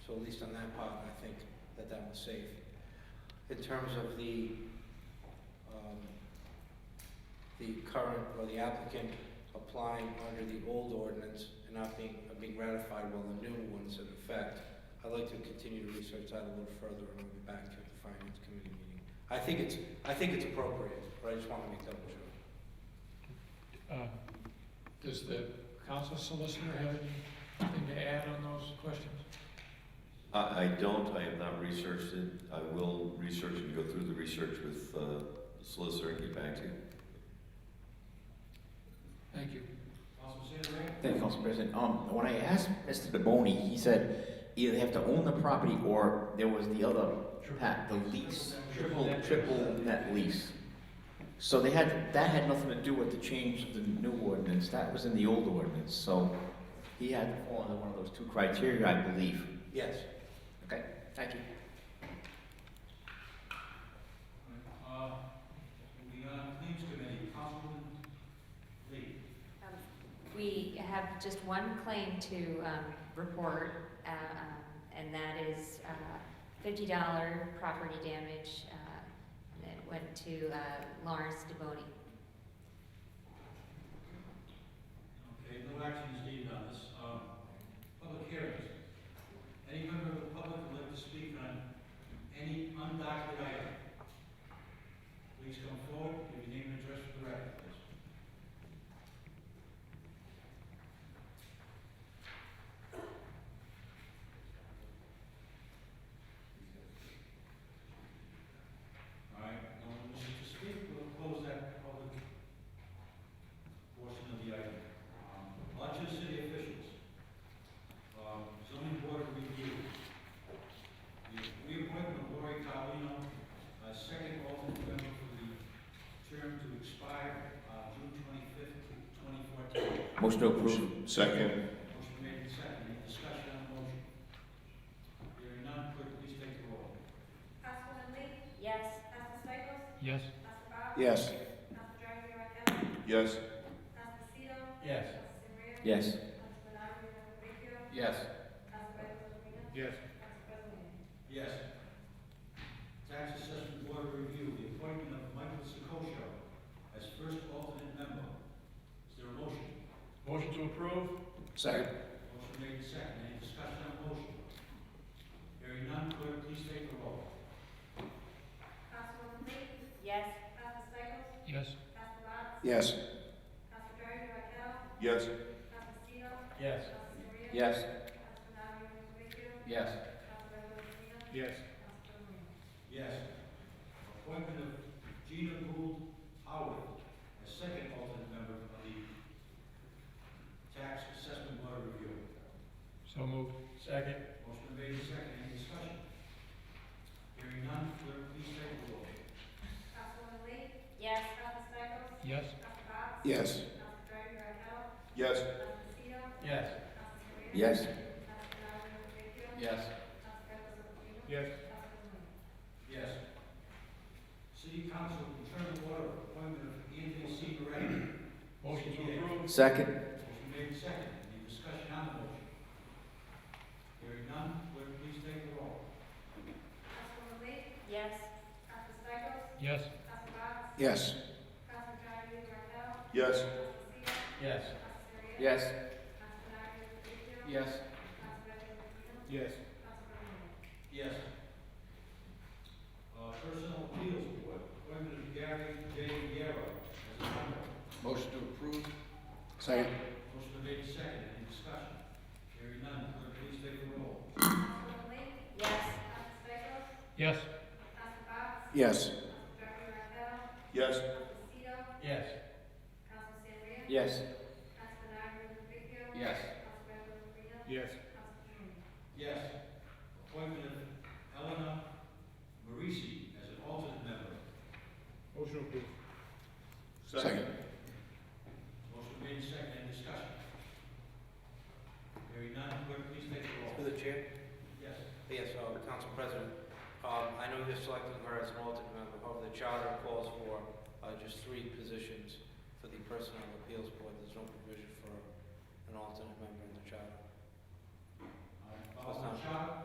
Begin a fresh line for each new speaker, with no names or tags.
So at least on that part, I think that that was safe. In terms of the, um, the current or the applicant applying under the old ordinance and not being, uh, being ratified while the new one's in effect, I'd like to continue to research that a little further and we'll be back to the finance committee meeting. I think it's, I think it's appropriate, but I just want to make double sure.
Uh, Does the council solicitor have anything to add on those questions?
I, I don't, I have not researched it. I will research and go through the research with uh, the solicitor and get back to you.
Thank you.
Thank you, Council President. Um, when I asked Mr. DeBoni, he said either they have to own the property or there was the other, pat, the lease, triple, triple net lease. So they had, that had nothing to do with the change of the new ordinance. That was in the old ordinance, so he had to fall under one of those two criteria, I believe.
Yes.
Okay, thank you.
Moving on, Claims Committee, Councilman Lee.
We have just one claim to um, report, uh, um, and that is uh, $50 property damage uh, that went to uh, Lawrence DeBoni.
Okay, no action is needed on this. Um, Public hearings. Any member of the public would like to speak on any undocumented item? Please come forward, give your name and address for the record, please. All right, no one wishes to speak, we'll close that public portion of the item. Um, Election of city officials. Um, Zoning board of review. The reappointment of Lori Carlino, uh, second alternate member for the term to expire uh, June twenty-fifth, twenty fourteen.
Motion to approve.
Second.
Motion made and seconded, any discussion on the motion? Hearing none, clerk, please take the roll.
Yes.
Yes.
Yes.
Yes.
Yes.
Yes.
Yes.
Yes. Yes. Tax assessment board review, the appointment of Michael Sikosha as first alternate member. Is there a motion?
Motion to approve?
Second.
Motion made and seconded, any discussion on the motion? Hearing none, clerk, please take the roll.
Yes.
Yes.
Yes.
Yes.
Yes.
Yes.
Yes. Yes.
Yes. Appointment of Gina Gould Howard as second alternate member of the tax assessment board review.
So moved. Second.
Motion made and seconded, any discussion? Hearing none, clerk, please take the roll.
Yes.
Yes.
Yes.
Yes.
Yes.
Yes.
Yes. Yes.
Yes. City Council, determine order of appointment of Anthony C. Moretti.
Motion to approve?
Second.
Motion made and seconded, any discussion on the motion? Hearing none, clerk, please take the roll.
Yes.
Yes.
Yes.
Yes.
Yes.
Yes.
Yes. Yes.
Yes. Uh, Personal Appeals Board, appointment of Gary J. Yarrow as a member.
Motion to approve?
Second.
Motion made and seconded, any discussion? Hearing none, clerk, please take the roll.
Yes.
Yes.
Yes.
Yes.
Yes.
Yes.
Yes. Yes.
Yes. Appointment of Eleanor Marisi as an alternate member.
Motion to approve?
Second.
Motion made and seconded, any discussion? Hearing none, clerk, please take the roll.
Through the chair.
Yes.
Yes, uh, Council President, um, I know you're selecting her as an alternate member, however, the charter calls for, uh, just three positions for the Personnel Appeals Board, there's no provision for an alternate member in the charter.
All right, follow the charter.